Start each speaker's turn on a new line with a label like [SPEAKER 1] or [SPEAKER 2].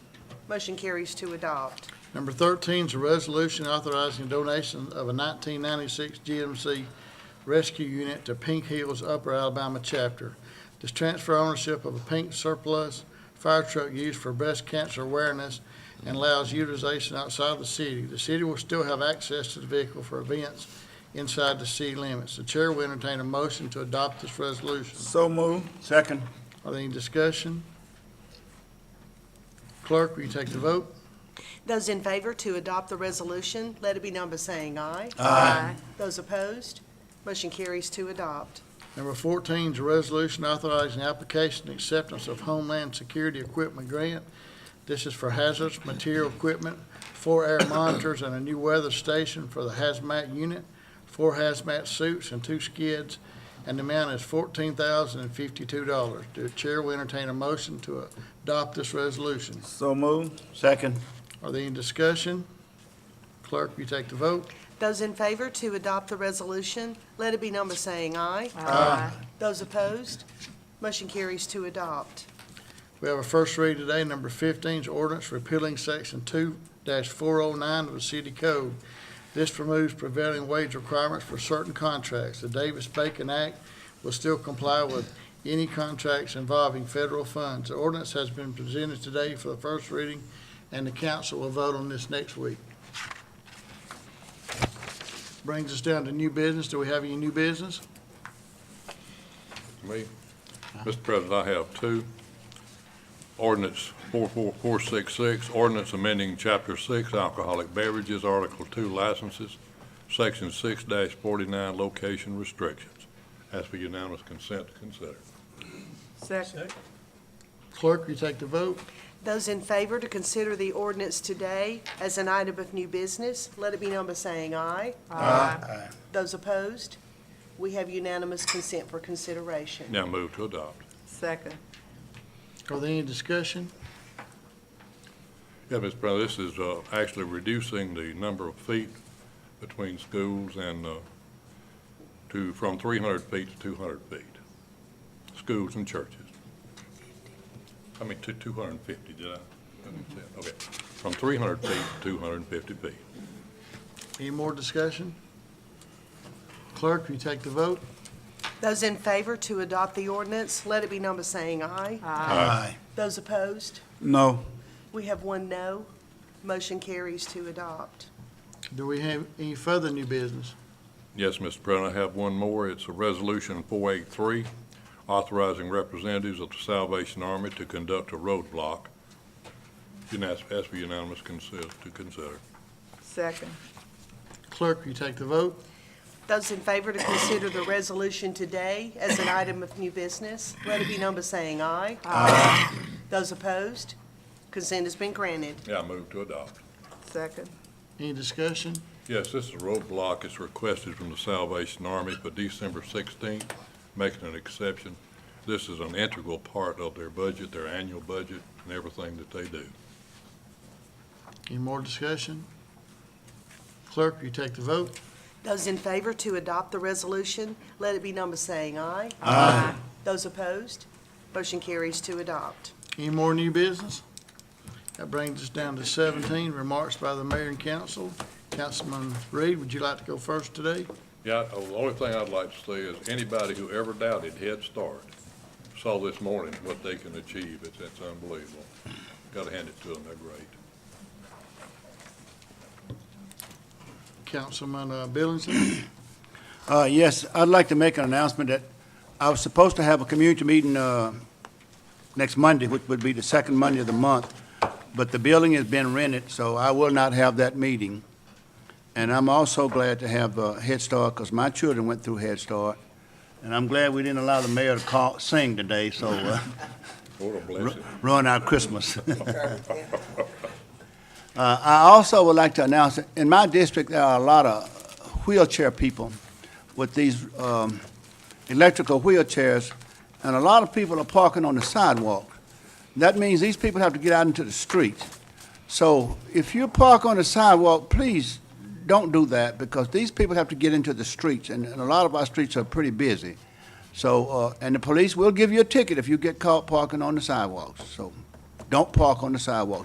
[SPEAKER 1] Motion carries to adopt.
[SPEAKER 2] Number 13 is a resolution authorizing donation of a 1996 GMC rescue unit to Pink Hills Upper Alabama Chapter. This transfer ownership of a pink surplus fire truck used for breast cancer awareness and allows utilization outside the city. The city will still have access to the vehicle for events inside the city limits. The chair will entertain a motion to adopt this resolution.
[SPEAKER 3] So move. Second.
[SPEAKER 2] Are there any discussion? Clerk, will you take the vote?
[SPEAKER 1] Those in favor to adopt the resolution, let it be known by saying aye.
[SPEAKER 4] Aye.
[SPEAKER 1] Those opposed, motion carries to adopt.
[SPEAKER 2] Number 14 is a resolution authorizing application and acceptance of Homeland Security Equipment Grant. This is for hazardous material equipment, four air monitors, and a new weather station for the hazmat unit, four hazmat suits, and two skids, and the amount is $14,052. The chair will entertain a motion to adopt this resolution.
[SPEAKER 3] So move. Second.
[SPEAKER 2] Are there any discussion? Clerk, will you take the vote?
[SPEAKER 1] Those in favor to adopt the resolution, let it be known by saying aye.
[SPEAKER 4] Aye.
[SPEAKER 1] Those opposed, motion carries to adopt.
[SPEAKER 2] We have a first read today, number 15 's ordinance repealing section 2-409 of the city code. This removes prevailing wage requirements for certain contracts. The Davis-Bacon Act will still comply with any contracts involving federal funds. The ordinance has been presented today for the first reading, and the council will vote on this next week. Brings us down to new business. Do we have any new business?
[SPEAKER 5] Me? Mr. President, I have two. Ordinance 44466, ordinance amending Chapter 6 alcoholic beverages, Article 2 licenses, Section 6-49 location restrictions. Ask for unanimous consent to consider.
[SPEAKER 4] Second.
[SPEAKER 2] Clerk, will you take the vote?
[SPEAKER 1] Those in favor to consider the ordinance today as an item of new business, let it be known by saying aye.
[SPEAKER 4] Aye.
[SPEAKER 1] Those opposed, we have unanimous consent for consideration.
[SPEAKER 5] Now move to adopt.
[SPEAKER 4] Second.
[SPEAKER 2] Are there any discussion?
[SPEAKER 5] Yeah, Mr. President, this is uh, actually reducing the number of feet between schools and uh, to, from 300 feet to 200 feet, schools and churches. I mean, to 250, did I? Okay, from 300 feet to 250 feet.
[SPEAKER 2] Any more discussion? Clerk, will you take the vote?
[SPEAKER 1] Those in favor to adopt the ordinance, let it be known by saying aye.
[SPEAKER 3] Aye.
[SPEAKER 1] Those opposed,
[SPEAKER 3] No.
[SPEAKER 1] we have one no. Motion carries to adopt.
[SPEAKER 2] Do we have any further new business?
[SPEAKER 5] Yes, Mr. President, I have one more. It's a Resolution 483, authorizing representatives of the Salvation Army to conduct a roadblock. Unas- Ask for unanimous consent to consider.
[SPEAKER 4] Second.
[SPEAKER 2] Clerk, will you take the vote?
[SPEAKER 1] Those in favor to consider the resolution today as an item of new business, let it be known by saying aye. Aye. Those opposed, consent has been granted.
[SPEAKER 5] Yeah, move to adopt.
[SPEAKER 4] Second.
[SPEAKER 2] Any discussion?
[SPEAKER 5] Yes, this is a roadblock. It's requested from the Salvation Army for December 16th, making an exception. This is an integral part of their budget, their annual budget, and everything that they do.
[SPEAKER 2] Any more discussion? Clerk, will you take the vote?
[SPEAKER 1] Those in favor to adopt the resolution, let it be known by saying aye.
[SPEAKER 4] Aye.
[SPEAKER 1] Those opposed, motion carries to adopt.
[SPEAKER 2] Any more new business? That brings us down to 17, remarks by the mayor and council. Councilman Reed, would you like to go first today?
[SPEAKER 5] Yeah, I- the only thing I'd like to say is anybody who ever doubted Head Start saw this morning what they can achieve. It's, it's unbelievable. Got to hand it to them. They're great.
[SPEAKER 2] Councilman uh, Billingsley?
[SPEAKER 3] Uh, yes, I'd like to make an announcement that I was supposed to have a community meeting, uh, next Monday, which would be the second Monday of the month, but the building has been rented, so I will not have that meeting. And I'm also glad to have, uh, Head Start, because my children went through Head Start. And I'm glad we didn't allow the mayor to call, sing today, so, uh,
[SPEAKER 5] What a blessing.
[SPEAKER 3] ruin our Christmas. Uh, I also would like to announce, that in my district, there are a lot of wheelchair people with these um, electrical wheelchairs, and a lot of people are parking on the sidewalk. That means these people have to get out into the street. So if you park on the sidewalk, please don't do that, because these people have to get into the streets, and and a lot of our streets are pretty busy. So, uh, and the police will give you a ticket if you get caught parking on the sidewalks, so don't park on the sidewalks.